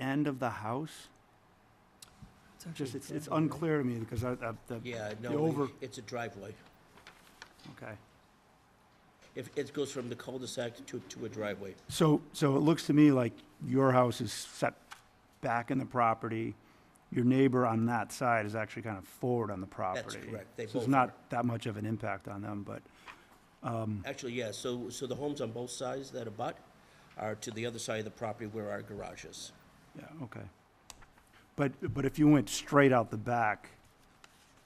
end of the house? Just, it's, it's unclear to me because I, I, the, Yeah, The over- no, it's a driveway. okay. If, it goes from the cul-de-sac to, to a driveway. So, so it looks to me like your house is set back in the property. Your neighbor on that side is actually kind of forward on the property. correct. They So both it's not that much of an impact on them, but, Hmm. Actually, yeah, so, so the homes on both sides that abut are to the other side of the property where our garage is. yeah, okay. But, but if you went straight out the back,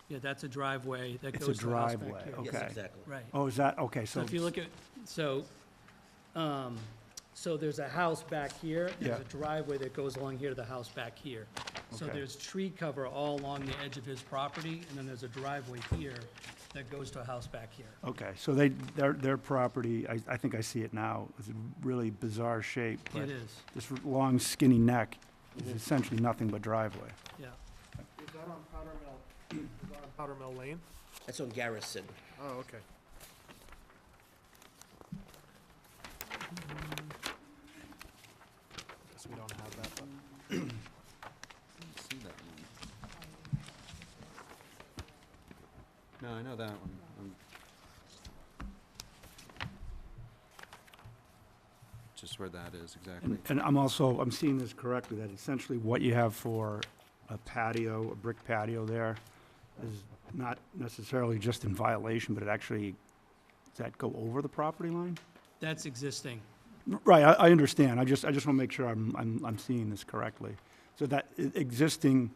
Yeah, that's a driveway that It's a goes to the house back here. driveway, Yes, Okay. exactly. Right. oh, is that, okay, so. So if you look at, so, um, so there's a house back here, there's a Yeah. driveway that goes along here to the house back here. So Okay. there's tree cover all along the edge of his property, and then there's a driveway here that goes to a house back here. Okay, so they, their, their property, I, I think I see it now, is a really bizarre shape. but It is, This r- long skinny neck is essentially nothing but driveway. yeah. Is that on Powder Mill, is that on Powder Mill Lane? That's on Garrison. Oh, okay. Guess we don't have that, but. see that one. No, I know that one. I'm Just where that is exactly. And, and I'm also, I'm seeing this correctly, that essentially what you have for a patio, a brick patio there, is not necessarily just in violation, but it actually, does that go over the property line? That's existing. Right, I, I understand, I just, I just want to make sure I'm, I'm, I'm seeing this correctly. So that e- existing,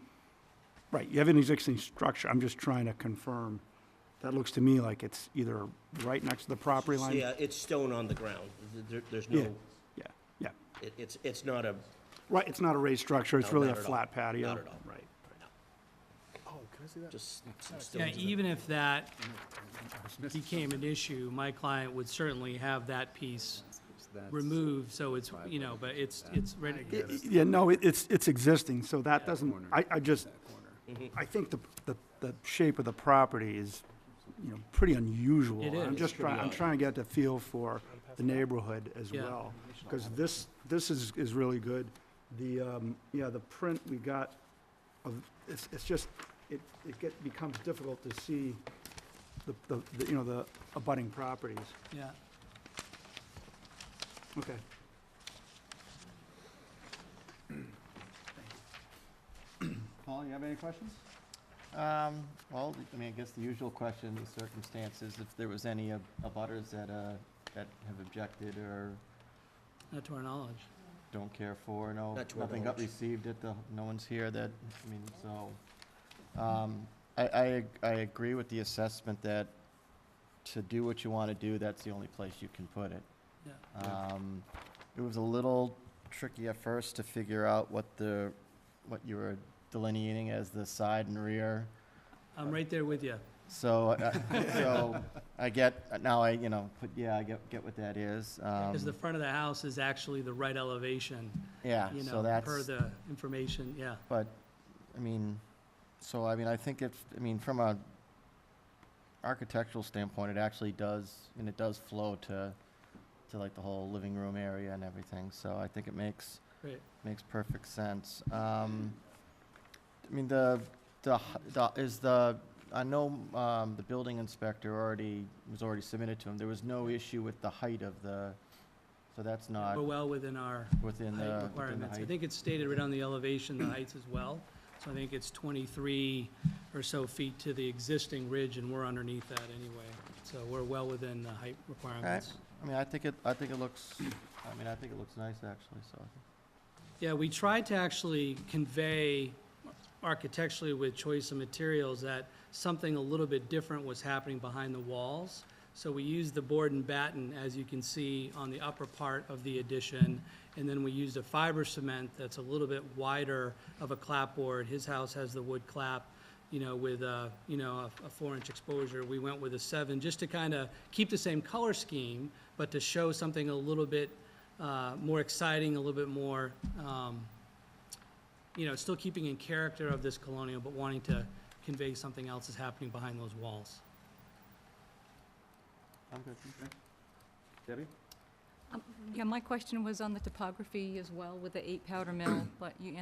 right, you have an existing structure, I'm just trying to confirm. That looks to me like it's either right next to the property So, line? Yeah, it's stone on the ground. Th- there- there's Yeah, no, yeah, yeah. it, it's, it's not a, Right, it's not a raised structure, it's No, really a not at all. flat patio. Not at all. Right. Oh, can I see that? just some Yeah, stones. in it. even if that became an issue, my client would certainly have that piece That's- removed, so it's, you know, but it's, it's ready. I- I- Yeah, no, it- it's, it's existing, so that doesn't, corner. I, I just, Mm-hmm. I think the, the, the shape of the property is, you know, pretty unusual. It I'm is. just trying, I'm trying to get the feel for the neighborhood as Yeah. well, because this, this is, is really good. The, um, yeah, the print we got of, it's, it's just, it, it get, becomes difficult to see the, the, the, you know, the abutting properties. Yeah. Okay. Paul, you have any questions? Um, well, I mean, I guess the usual question, the circumstances, if there was any ab- abutters that, uh, that have objected or Not to our knowledge. don't care for, no, Not to our nothing got knowledge. received at the, no one's here that, I mean, so. Um, I, I, ag- I agree with the assessment that to do what you wanna do, that's the only place you can put it. Yeah. Um, it was a little tricky at first to figure out what the, what you were delineating as the side and rear. I'm right there with you. So, I- so I get, now I, you know, but yeah, I get, get what that is. Because the Um, front of the house is actually the right elevation, Yeah, you Ah, so know, that's. per the information, yeah. But, I mean, so, I mean, I think it's, I mean, from a architectural standpoint, it actually does, I mean, it does flow to, to like the whole living room area and everything, so I think it makes, Great. makes perfect sense. Um, I mean, the, the, h- the, is the, I know, um, the building inspector already, was already submitted to him, there was no issue with the height of the, so that's not We're well within our within the, height within the requirements. I height. think it's stated right on the elevation, the heights as well. So I think it's 23 or so feet to the existing ridge, and we're underneath that anyway. So we're well within the height requirements. I mean, I think it, I think it looks, I mean, I think it looks nice, actually, so. I think- Yeah, we tried to actually convey architecturally with choice of materials that something a little bit different was happening behind the walls. So we used the board and batten, as you can see, on the upper part of the addition. And then we used a fiber cement that's a little bit wider of a clapboard. His house has the wood clap, you know, with a, you know, a- a four-inch exposure. We went with a seven, just to kind of keep the same color scheme, but to show something a little bit uh, more exciting, a little bit more, um, you know, still keeping in character of this colonial, but wanting to convey something else is happening behind those walls. I'm good. Debbie? Um, Yeah, my question was on the topography as well with the eight powder mill, but you